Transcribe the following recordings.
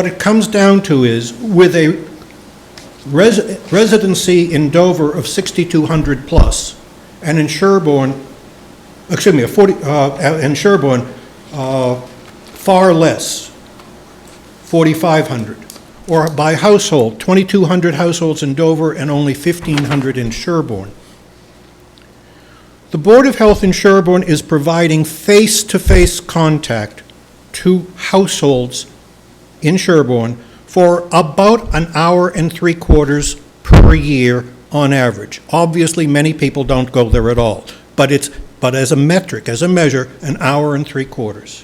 What it comes down to is, with a res- residency in Dover of 6,200 plus, and in Sherborne, excuse me, a 40, uh, and Sherborne, uh, far less, 4,500. Or by household, 2,200 households in Dover and only 1,500 in Sherborne. The Board of Health in Sherborne is providing face-to-face contact to households in Sherborne for about an hour and three quarters per year on average. Obviously, many people don't go there at all, but it's, but as a metric, as a measure, an hour and three quarters.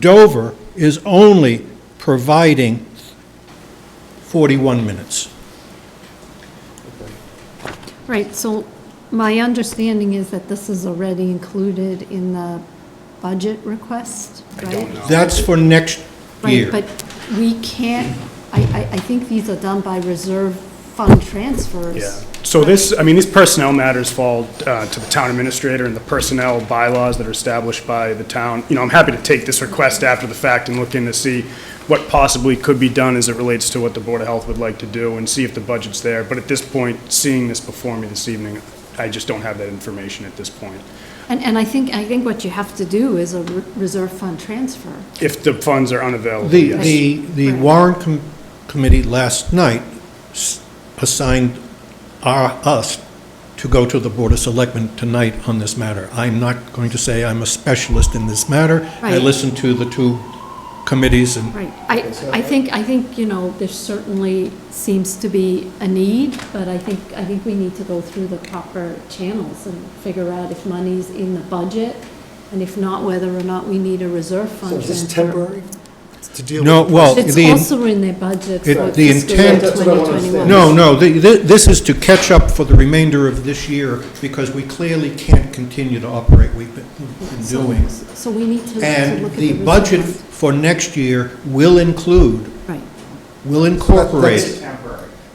Dover is only providing 41 minutes. Right, so my understanding is that this is already included in the budget request, right? That's for next year. Oh. Right, but we can't, I, I, I think these are done by reserve fund transfers. Yeah, so this, I mean, these personnel matters fall uh, to the town administrator and the personnel bylaws that are established by the town. You know, I'm happy to take this request after the fact and look in to see what possibly could be done as it relates to what the Board of Health would like to do and see if the budget's there. But at this point, seeing this before me this evening, I just don't have that information at this point. And, and I think, I think what you have to do is a re- reserve fund transfer. If the funds are unavailable, The, yes. the, the warrant com- committee last night s- assigned our, us to go to the Board of Selectmen tonight on this matter. I'm not going to say I'm a specialist in this matter. I Right. listened to the two committees and Right, I, I think, I think, you know, there certainly seems to be a need, but I think, I think we need to go through the proper channels and figure out if money's in the budget, and if not, whether or not we need a reserve fund. So is this transfer. temporary to deal with? No, well- It's The in- also in their budget It- for the fiscal year intent- That's what I wanna 2021. understand. No, no, the- thi- this is to catch up for the remainder of this year, because we clearly can't continue to operate we've been been So- doing. So we need to to look at the And the reserve budget fund. for next year will include, Right, will That's- incorporate,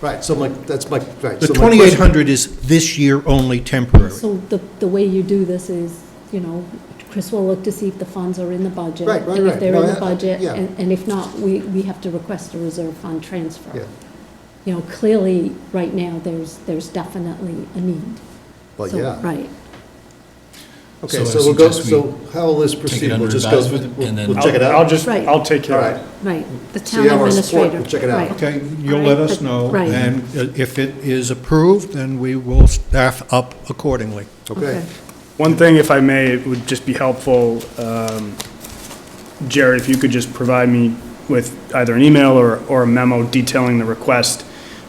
Right, so my, that's my, right. the so my question- 2,800 is this year only temporary. so the, the way you do this is, you know, Chris will look to see if the funds are in the budget. Right, right, And if right. they're No, in the I- I- budget, yeah. and, and if not, we, we have to request a reserve fund transfer. Yeah. You know, clearly, right now, there's, there's definitely a need. Well, So, yeah. Right, Okay, So I so we'll go, suggest we so how will this proceed? under We'll just go. advisement we'll- and then- We'll check it I'll- out. I'll just, Right. I'll take care All of right. it. right, the So town you have our support. administrator. We'll check it out. right. Okay, you'll let us know, Right. and uh, if it is approved, then we will staff up accordingly. Okay. One thing, if I may, it would just be helpful, um, Jared, if you could just provide me with either an email or, or a memo detailing the request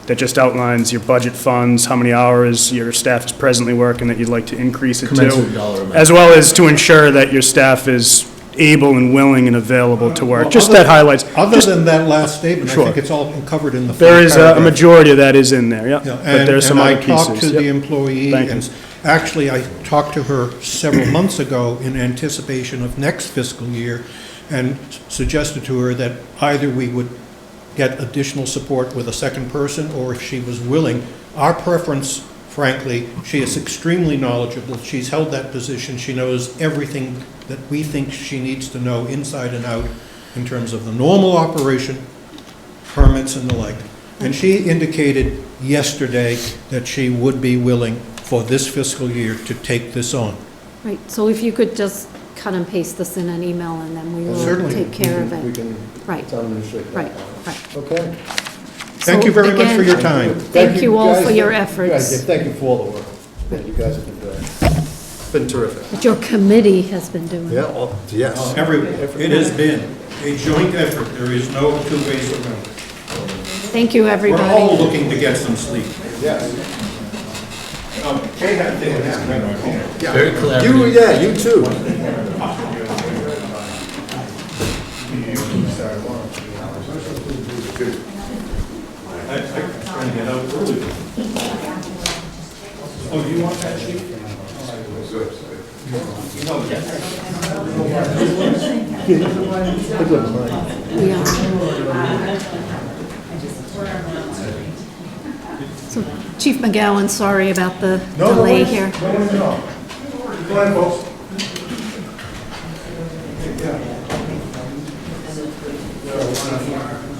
that just outlines your budget funds, how many hours your staff is presently working that you'd like to increase it Commensurate to, dollar amount. as well as to ensure that your staff is able and willing and available to work, just that highlights. Other just- than that last statement, I Sure. think it's all covered in the full There is a- a paragraph. majority of that is in there, yeah, Yeah, but and, there's some and other I pieces. talked to the yep. employee, Thank and you. actually, I talked to her several months ago in anticipation of next fiscal year, and suggested to her that either we would get additional support with a second person, or if she was willing, our preference, frankly, she is extremely knowledgeable, she's held that position, she knows everything that we think she needs to know inside and out in terms of the normal operation permits and the like. And she indicated yesterday that she would be willing for this fiscal year to take this on. Right, so if you could just cut and paste this in an email, and then we will Certainly. take care of We it. can, Right, town administrator. right, right. Okay. Thank you very much for your So, again, time. Thank you all guys. for your You guys efforts. did- Thank you for all the work that you guys have been doing. It's Been terrific. Oh, But your committee has been doing. Yeah, all- yes. Everyone, it has been a joint effort, there is no two ways around it. Thank you, We're everybody. all looking to get some sleep. Yes. Okay, I think that's right. Very collaborative. You, yeah, you too. We are. So Chief McGowan, sorry about the delay here. Go ahead, folks.